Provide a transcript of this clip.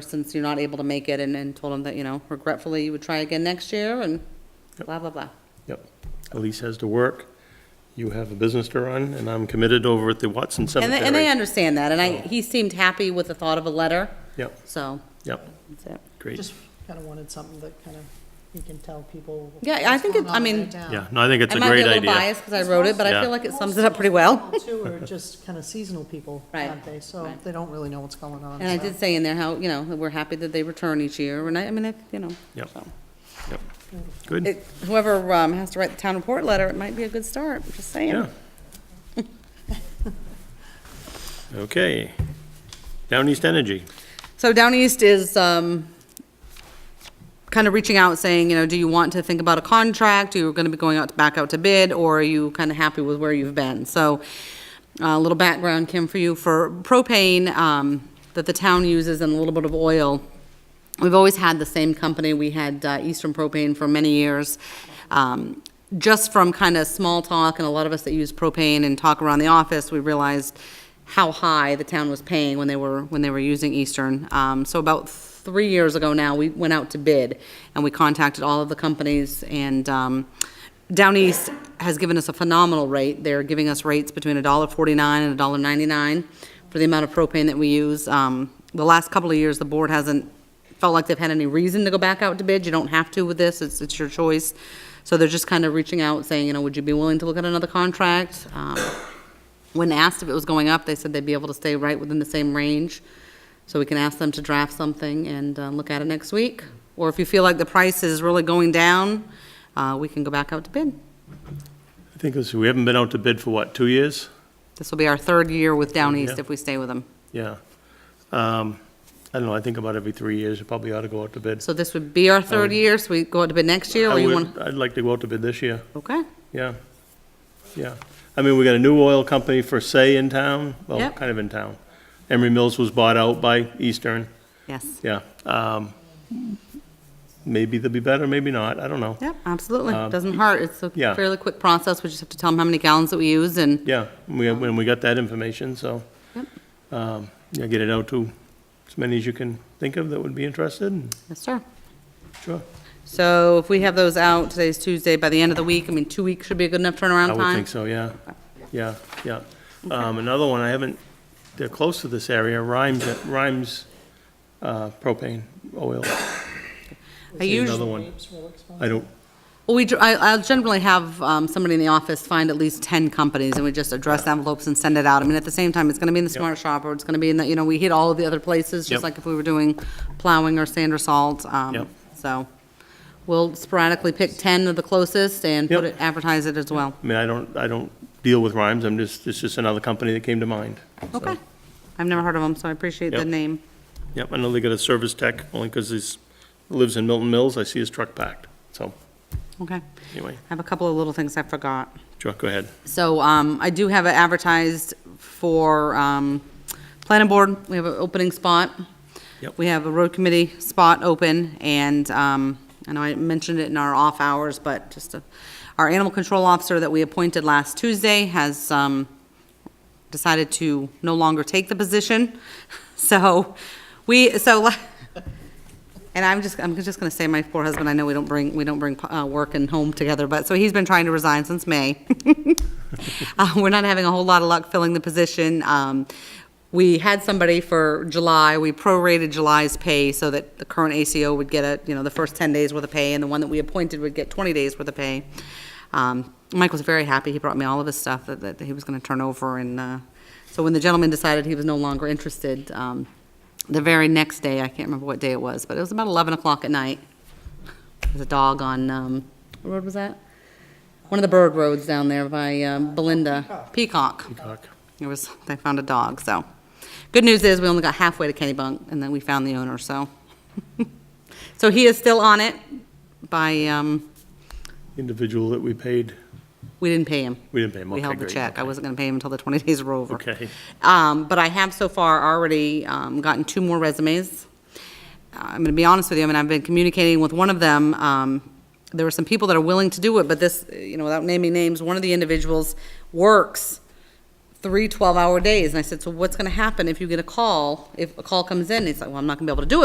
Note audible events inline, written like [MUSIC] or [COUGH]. since you're not able to make it, and, and told him that, you know, regretfully, you would try again next year, and blah, blah, blah. Yep. Elise has to work, you have a business to run, and I'm committed over at the Watson And they, and they Cemetery. understand that, and I, he seemed happy with the thought of a letter, Yep, so, yep, that's it. great. Just kind of wanted something that kind of, you can tell people. Yeah, I what's think going it- on I in their mean- town. Yeah, no, I think it's uh, I a might be great a little idea. biased, because I wrote it, but I Yeah. feel like it sums it up pretty well. Most people Too, are just kind of seasonal people, [LAUGHS] Right, aren't they? So right. they don't really know what's going on. And I so. did say in there how, you know, that we're happy that they return each year, and I, I mean, it, you know. Yep. so. Yep, good, It- Whoever, um, has to write the town report letter, it might be a good start, just saying. [LAUGHS] yeah. Okay. Down East Energy, So Down East is, um, kind of reaching out, saying, you know, do you want to think about a contract? Are you going to be going out, back out to bid, or are you kind of happy with where you've been? So uh, a little background, Kim, for you, for propane um, that the town uses and a little bit of oil. We've always had the same company. We had uh, Eastern Propane for many years. Um, Just from kind of small talk, and a lot of us that use propane and talk around the office, we realized how high the town was paying when they were, when they were using Eastern. Um, So about three years ago now, we went out to bid, and we contacted all of the companies, and um, Down East has given us a phenomenal rate. They're giving us rates between $1.49 and $1.99 for the amount of propane that we use. Um, The last couple of years, the board hasn't felt like they've had any reason to go back out to bid. You don't have to with this, it's, it's your choice. So they're just kind of reaching out, saying, you know, would you be willing to look at another contract? Um, When asked if it was going up, they said they'd be able to stay right within the same range. So we can ask them to draft something and uh, look at it next week. Or if you feel like the price is really going down, uh, we can go back out to bid. I think this, we haven't been out to bid for what, two years? This will be our third year with Down East Yeah. if we stay with them. Yeah. Um, I don't know, I think about every three years, you probably ought to go out to bid. So this would be our third year, so we go out to bid next year, or I you would- want, I'd like to go out to bid this year. okay? Yeah, yeah. I mean, we got a new oil company for say in town, well, Yep. kind of in town. Emery Mills was bought out by Eastern, Yes. yeah. Um, Maybe they'll be better, maybe not, I don't know. Yep, absolutely. Doesn't hurt. It's a Um, yeah. fairly quick process. We just have to tell them how many gallons that we use and, Yeah, we, when we got that information, so. Yep. um, Yeah, get it out to as many as you can think of that would be interested, and yes, sir. sure. So if we have those out, today's Tuesday, by the end of the week, I mean, two weeks should be a good enough turnaround I time? would think so, yeah, yeah, yeah. Um, Another one, I haven't, they're close to this area, Rhymes, Rhymes uh, propane oil. I Need usually, Another one. Grapes, relics, I don't, well, we, dr- I, I'll generally have, um, somebody in the office find at least ten companies and we just address envelopes and send it out. I mean, at the same time, it's gonna be in the Smart Shop or it's gonna be in the, you know, we hit all of the other places, Yep. just like if we were doing plowing or sand or salt, Yep. um, so. We'll sporadically pick ten of the closest and put Yep. it, advertise it as well. I mean, I don't, I don't deal with Rhymes, I'm just, it's just another company that came to mind. so. Okay. I've never heard of them, so I appreciate the Yep. name. Yep, I know they got a service tech, only because he's, lives in Milton Mills, I see his truck packed, so, Okay. I anyway, have a couple of little things I forgot. Chuck, go ahead. So um, I do have it advertised for um, planning board. We have an opening spot. Yep. We have a road committee spot open, and um, I know I mentioned it in our off hours, but just a- our animal control officer that we appointed last Tuesday has um, decided to no longer take the position. [LAUGHS] So we, so, [LAUGHS] la- and I'm just, I'm just gonna say my poor husband, I know we don't bring, we don't bring uh, work and home together, but, so he's been trying to resign since May. [LAUGHS] Uh, We're not having a whole lot of luck filling the position. Um, We had somebody for July, we prorated July's pay so that the current ACO would get a, you know, the first 10 days worth of pay, and the one that we appointed would get 20 days worth of pay. Um, Mike was very happy, he brought me all of his stuff that, that he was gonna turn over, and, uh, so when the gentleman decided he was no longer interested, um, the very next day, I can't remember what day it was, but it was about 11 o'clock at night, there's a dog on, um, what road was that? One of the bird roads down there by um, Belinda. Peacock. Chuck. It was, they found a dog, so. Good news is, we only got halfway to Kennybunk, and then we found the owner, so. [LAUGHS] So he is still on it by, um, Individual that we paid, we didn't pay him. we didn't pay him, We okay, held the great, check. I okay. wasn't gonna pay him until the 20 days were over. Okay. Um, but I have so far already, um, gotten two more resumes. Uh, I'm gonna be honest with you, I mean, I've been communicating with one of them. Um, there were some people that are willing to do it, but this, you know, without naming names, one of the individuals works three 12-hour days. And I said, so what's gonna happen if you get a call, if a call comes in? He's like, well, I'm not gonna be able to do it